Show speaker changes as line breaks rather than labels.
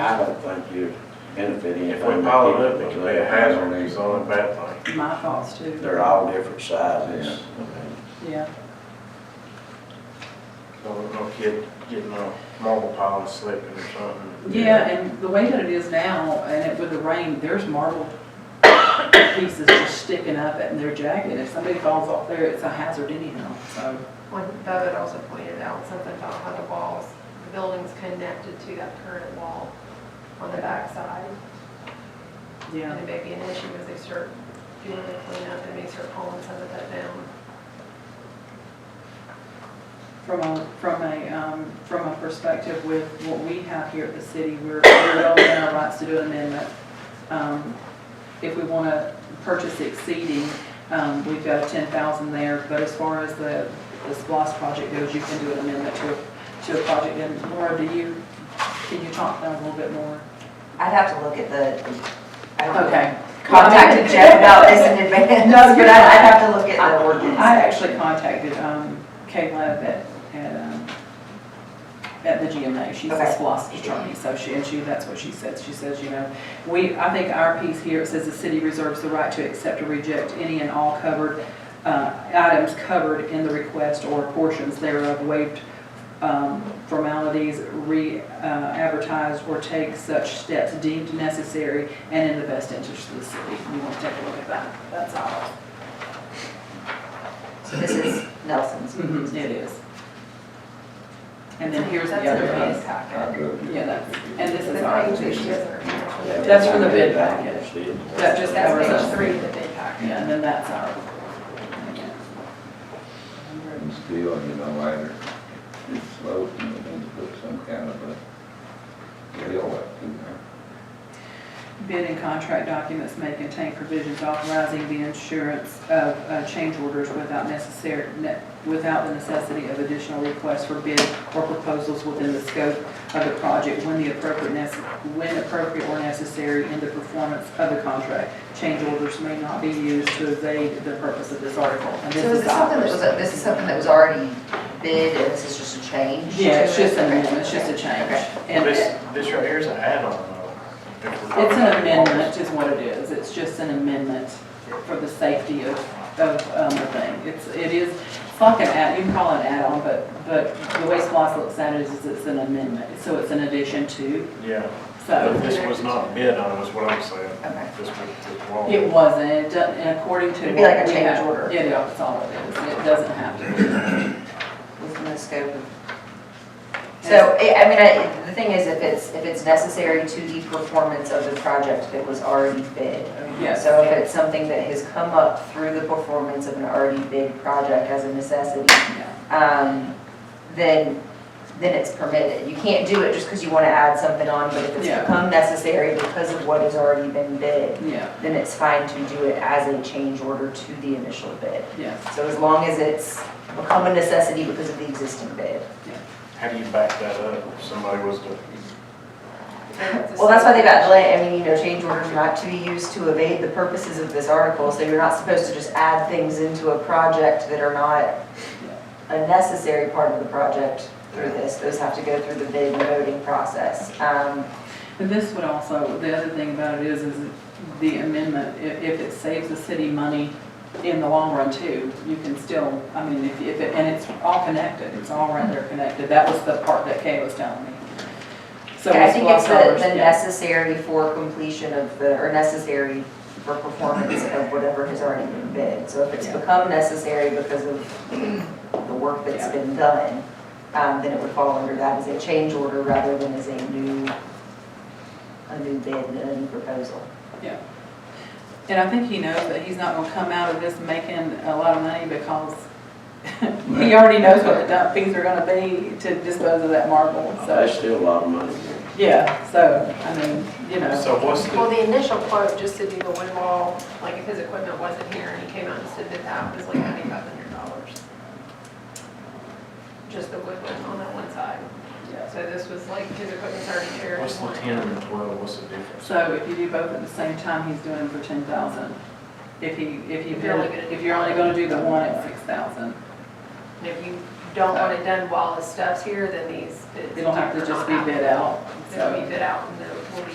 don't think you're benefiting.
If
from
we pile it
people
up, it could be a
that-
hazard, it's the only bad thing.
My thoughts too.
They're all different sizes.
Yeah,
So no kid getting a marble pile and slipping or something.
yeah, and the way that it is now, and it with the rain, there's marble pieces just sticking up and they're jagged. If somebody falls off there, it's a hazard anyhow, so.
One, Bo had also pointed out something about how the walls, the building's connected to that current wall on the backside. And it may be an issue as they start doing the cleanup, they may start pulling some of that down.
From a, from a, um, from a perspective with what we have here at the city, we're, we're well within our rights to do an amendment. Um, If we want to purchase exceeding, um, we've got ten thousand there, but as far as the, the SPOS project goes, you can do an amendment to, a- to a project. And Laura, do you, can you talk down a little bit more?
I'd have to look at the, I don't know.
Okay.
Contacted Jeff about this in advance,
No, you're
but I'd, I'd
fine.
have to look at the ordinance.
I actually contacted um, Kayla at, at, um, at the GMA. She's a
Okay.
SPOS attorney, so she, and she, that's what she says. She says, you know, we, I think our piece here, it says the city reserves the right to accept or reject any and all covered, uh, items covered in the request or portions thereof waived um, formalities, re-advertise or take such steps deemed necessary and in the best interest of the city. You want to take a look at that? That's all.
So this is Nelson's.
Mhm, It is. And then here's the
That's in
other
the bid
piece.
packet.
Yeah, that's, and this
The
is our
page that she
addition.
has there.
Yeah,
That's from the
I
bid
did that.
package.
See it.
That just covers
That's page
us.
three of the bid packet.
Yeah, and then that's our.
And still, you know, either it's sloped and we need to put some kind of a rail up through there.
Bid and contract documents may contain provisions authorizing the insurance of uh, change orders without necessary, ne- without the necessity of additional requests for bid or proposals within the scope of the project when the appropriate, nece- when appropriate or necessary in the performance of the contract. Change orders may not be used to evade the purpose of this article. And
So
this is
is this something that
ours.
was, this is something that was already bid and this is just a change? to
Yeah, it's
it?
just an
Okay.
amendment, it's just a change.
Okay.
And
This,
it-
this right here is an add-on though. if we're
it's an
talking about
amendment is what it is, it's just an amendment for the safety of, of, um, the thing. It's, it is, it's like an add, you can call it an add-on, but, but the way SPOS looks at it is it's an amendment, so it's an addition to,
walls. Yeah, but
so.
this was not bid on, was what I'm saying.
Okay.
This was, this wall.
It wasn't, it doesn't, and according to.
It'd be like a
what we
change
have-
order.
Yeah, yeah, that's all it is, it doesn't have to be.
Within the scope of. So, I I mean, I, the thing is, if it's, if it's necessary to the performance of the project that was already bid.
Yes.
So if it's something that has come up through the performance of an already bid project as a necessity,
Yeah.
um, then, then it's permitted. You can't do it just because you want to add something on, but if it's
Yeah.
become necessary because of what has already been bid,
Yeah,
then it's fine to do it as a change order to the initial bid.
yes,
So as long as it's become a necessity because of the existing bid.
How do you back that up if somebody was to,
Well, that's why they've got delay, I mean, you know, change orders are not to be used to evade the purposes of this article, so you're not supposed to just add things into a project that are not a necessary part of the project through this, those have to go through the bid and voting process. Um,
And this would also, the other thing about it is, is the amendment, i- if it saves the city money in the long run too, you can still, I mean, if, if, it- and it's all connected, it's all right there connected. That was the part that Kay was telling me. So
I think it's the,
Squaw's
the
yeah.
necessary for completion of the, or necessary for performance of whatever has already been bid. So if it's
Yeah.
become necessary because of the work that's
Yeah.
been done, um, then it would fall under that as a change order rather than as a new, a new bid and a new proposal.
And I think he knows that he's not gonna come out of this making a lot of money because he already knows what the dump fees are gonna be to dispose of that marble,
That's
so,
still a lot of money.
yeah, so, I mean, you know,
so what's the?
Well, the initial quote, just to do the one wall, like if his equipment wasn't here and he came out and said that that was like ninety-five hundred dollars. Just the wood one on that one side.
yeah.
So this was like his equipment's already here.
What's the ten and the twelve, what's the difference?
So if you do both at the same time, he's doing it for ten thousand. If he, if you,
If you're only gonna do
if you're only gonna do the one at six thousand,
And if you don't want it done while his stuff's here, then these bids.
it'll have to just be bid out,
They'll be
so.
bid out and they'll